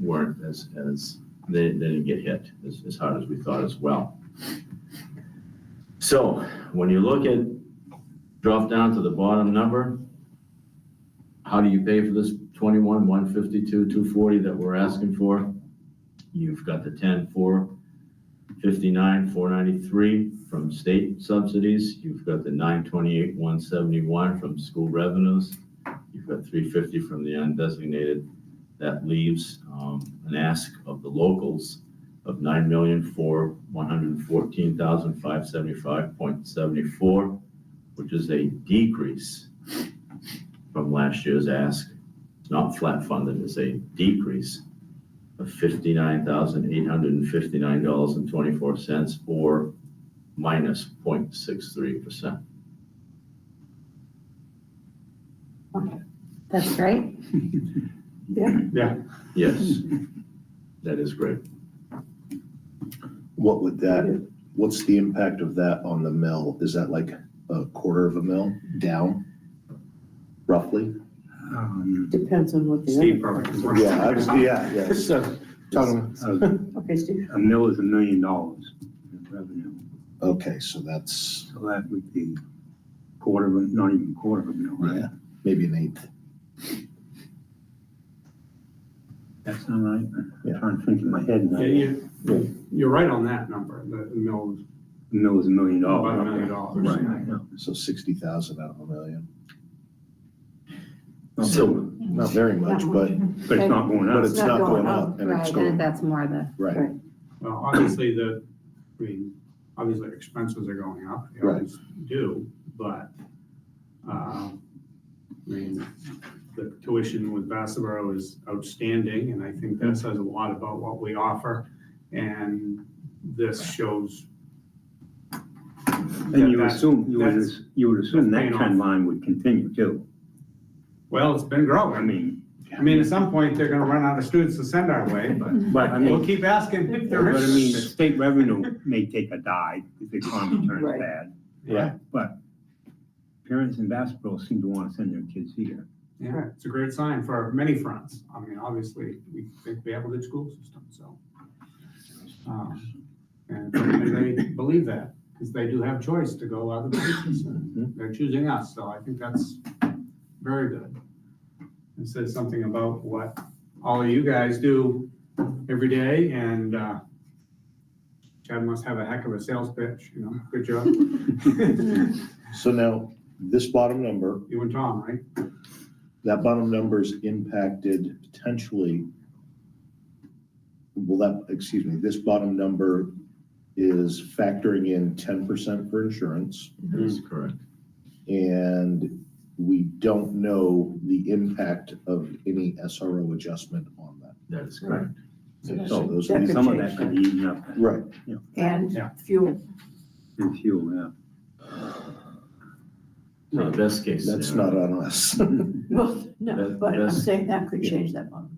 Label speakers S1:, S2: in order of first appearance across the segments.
S1: weren't as, as, they, they didn't get hit as, as hard as we thought as well. So when you look at, drop down to the bottom number, how do you pay for this twenty-one, one fifty-two, two forty that we're asking for? You've got the ten, four fifty-nine, four ninety-three from state subsidies. You've got the nine twenty-eight, one seventy-one from school revenues. You've got three fifty from the undesignated. That leaves um, an ask of the locals of nine million for one hundred fourteen thousand five seventy-five point seventy-four, which is a decrease from last year's ask. It's not flat funded, it's a decrease of fifty-nine thousand eight hundred and fifty-nine dollars and twenty-four cents or minus point six three percent.
S2: That's great.
S1: Yes, that is great.
S3: What would that, what's the impact of that on the mill? Is that like a quarter of a mill down roughly?
S4: Um,
S5: Depends on what the other.
S4: Steve probably. can work.
S3: Yeah, I was, yeah, yeah.
S6: uh,
S3: So, talking,
S4: A
S5: Okay, Steve,
S4: a mill is a million dollars in revenue,
S3: okay, so that's,
S4: so that would be quarter of, a- not even quarter of a mill, right?
S3: yeah, maybe an eighth.
S4: That's not right.
S3: Yeah.
S4: I'm trying to think in my head now.
S6: Yeah, you, you're right on that number, the the mill is
S4: A mill is a million dollars.
S6: about a million dollars.
S4: Right.
S3: So sixty thousand out of a million.
S1: So,
S3: Not very much, but,
S4: But it's not going
S3: but
S4: up.
S3: it's not going up and it's
S2: Right, and
S3: going,
S2: that's more the,
S3: right,
S6: Well, obviously, the, I mean, obviously expenses are going up, they
S3: Right.
S6: always do, but, uh, I mean, the tuition with Bassboro is outstanding, and I think that says a lot about what we offer, and this shows.
S4: And you
S6: that-
S4: assume, you would,
S6: that's-
S4: you would assume
S6: that's
S4: that
S6: paying
S4: trend line would continue too.
S6: Well, it's been
S4: I
S6: growing,
S4: mean,
S6: I mean, at some point, they're gonna run out of students to send our way, but
S4: but I
S6: we'll
S4: mean,
S6: keep asking if
S4: but
S6: there
S4: I mean, the
S6: is.
S4: state revenue may take a dive if the economy turns
S5: Right.
S4: bad.
S3: Yeah.
S4: But parents in basketball seem to want to send their kids here.
S6: Yeah, it's a great sign for many fronts. I mean, obviously, we think we have a good school system, so. um, And and they believe that, because they do have choice to go other places,
S3: Mm-hmm.
S6: and they're choosing us, so I think that's very good. It says something about what all of you guys do every day, and uh, Chad must have a heck of a sales pitch, you know, good job.
S5: Mm.
S3: so now, this bottom number,
S6: You and Tom, right?
S3: that bottom number is impacted potentially. Will that, excuse me, this bottom number is factoring in ten percent for insurance.
S1: that is correct.
S3: And we don't know the impact of any SRO adjustment on that.
S1: That is correct.
S5: So that's-
S3: So those
S5: that
S3: are
S5: could
S3: the-
S4: Some of that could be eaten up
S3: Right,
S5: and
S6: Yeah.
S5: fuel,
S4: in fuel, yeah.
S1: So the best case
S3: that's
S1: scenario,
S3: not on us.
S5: well, no,
S1: That-
S5: but I'm
S1: that's-
S5: saying that could change that one.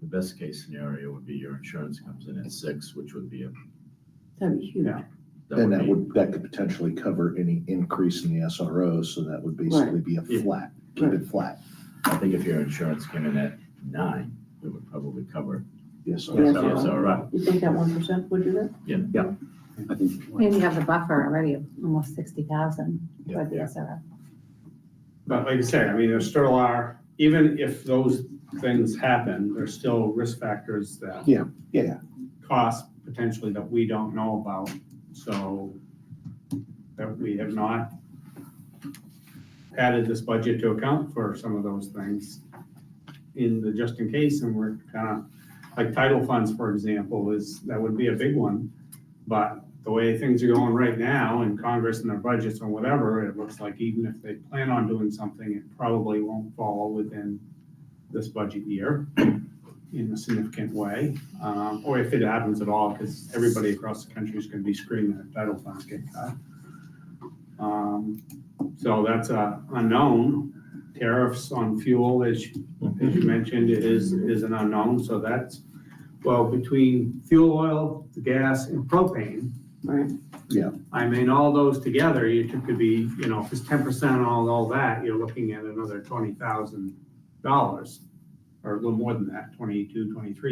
S1: the best case scenario would be your insurance comes in at six, which would be a,
S5: That'd be huge.
S6: Yeah.
S1: that
S3: Then
S1: would
S3: that
S1: be,
S3: would, that could potentially cover any increase in the SRO, so that would basically be a
S1: Yeah.
S3: flat, keep it flat.
S1: I think if your insurance came in at nine, it would probably cover.
S3: Yes,
S5: Yeah.
S3: sir.
S1: Yes, all right.
S5: You think that one percent would do that?
S4: I think.
S2: and you have the buffer already of almost sixty thousand for the
S1: Yeah.
S2: SRF.
S6: But like I said, I mean, there still are, even if those things happen, there's still risk factors that.
S3: Yeah, yeah.
S6: Cost potentially that we don't know about, so that we have not added this budget to account for some of those things in the just in case, and we're kind of, like title funds, for example, is, that would be a big one. But the way things are going right now in Congress and their budgets and whatever, it looks like even if they plan on doing something, it probably won't fall within this budget year in a significant way, um, or if it happens at all, because everybody across the country is going to be screaming that title funds get cut. Um, So that's a unknown. Tariffs on fuel, as you as you mentioned, is, is an unknown, so that's, well, between fuel oil, the gas, and propane,
S5: Right,
S6: I mean, all those together, you took- could be, you know, if it's ten percent on all that, you're looking at another twenty thousand dollars, or a little more than that, twenty-two, twenty-three